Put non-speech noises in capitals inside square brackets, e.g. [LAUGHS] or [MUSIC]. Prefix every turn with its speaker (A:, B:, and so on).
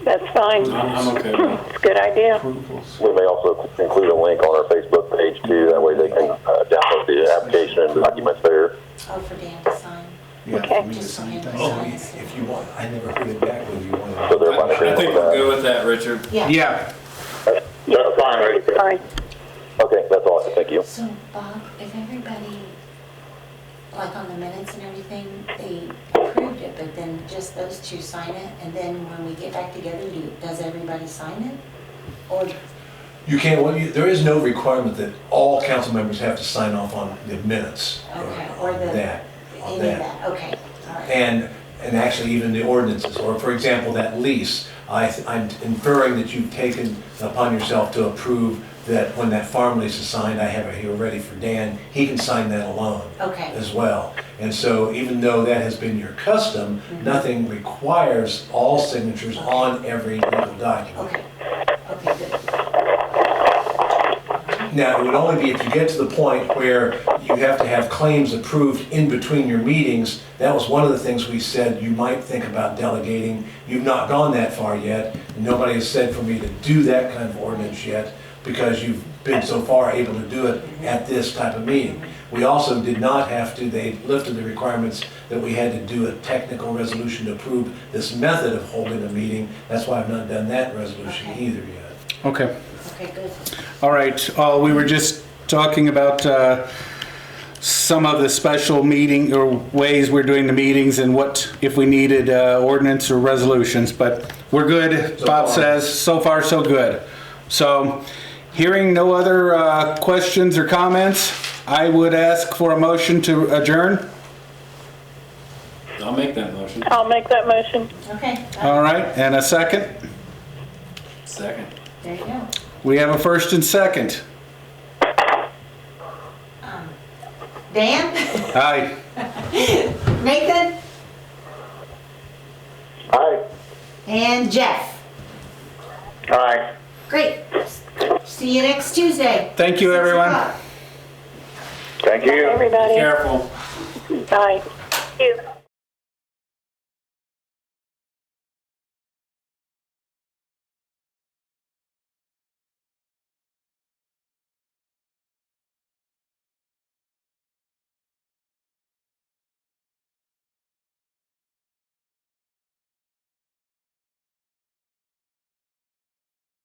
A: That's fine.
B: I'm I'm okay with
A: It's a good idea.
B: approvals.
C: We may also include a link on our Facebook page too, that way they can uh, download the application and documents there.
D: Oh, for Dan to sign.
E: Yeah,
A: Okay.
E: for me to sign things.
D: Oh.
E: If you want, I never heard it back whether you wanted.
C: So they're on
B: I think
C: agreement
B: we're
C: with
B: good with that, Richard.
D: Yeah.
E: Yeah,
C: that. Fine.
A: Fine.
C: Okay, that's all, thank you.
D: So Bob, if everybody, like on the minutes and everything, they approved it, but then just those two sign it, and then when we get back together, do, does everybody sign it? Or,
E: you can't, well, you- there is no requirement that all council members have to sign off on the minutes.
D: okay, or the,
E: That,
D: any
E: on
D: of
E: that.
D: that, okay, all right.
E: And, and actually even the ordinances, or for example, that lease, I, I'm inferring that you've taken upon yourself to approve that when that farm lease is signed, I have it here ready for Dan, he can sign that alone.
D: Okay.
E: As well. And so even though that has been your custom,
D: Mm-hmm.
E: nothing requires all signatures on every legal document.
D: Okay, okay, good.
E: Now, it would only be if you get to the point where you have to have claims approved in between your meetings. That was one of the things we said you might think about delegating. You've not gone that far yet. and Nobody has said for me to do that kind of ordinance yet because you've been so far able to do it at this type of meeting. We also did not have to, they lifted the requirements that we had to do a technical resolution to approve this method of holding a meeting. That's why I've not done that resolution
D: Okay.
E: either yet.
F: Okay.
D: Okay, good.
F: All right. Uh, we were just talking about uh, some of the special meeting or ways we're doing the meetings and what if we needed uh, ordinance or resolutions. But we're good.
E: So
F: Bob
E: far.
F: says so far so good. So, hearing no other uh, questions or comments, I would ask for a motion to adjourn.
B: I'll make that motion.
A: I'll make that motion.
D: Okay,
F: All right, and a second.
B: Second.
D: there you go.
F: We have a first and second.
D: Dan, [LAUGHS]
F: Aye.
D: Nathan,
C: Aye.
D: and Jeff.
C: Aye.
D: Great. See you next Tuesday.
F: Thank you,
D: Six
F: everyone.
D: o'clock.
C: Thank you.
A: Everybody,
B: Careful.
A: bye. Thank you.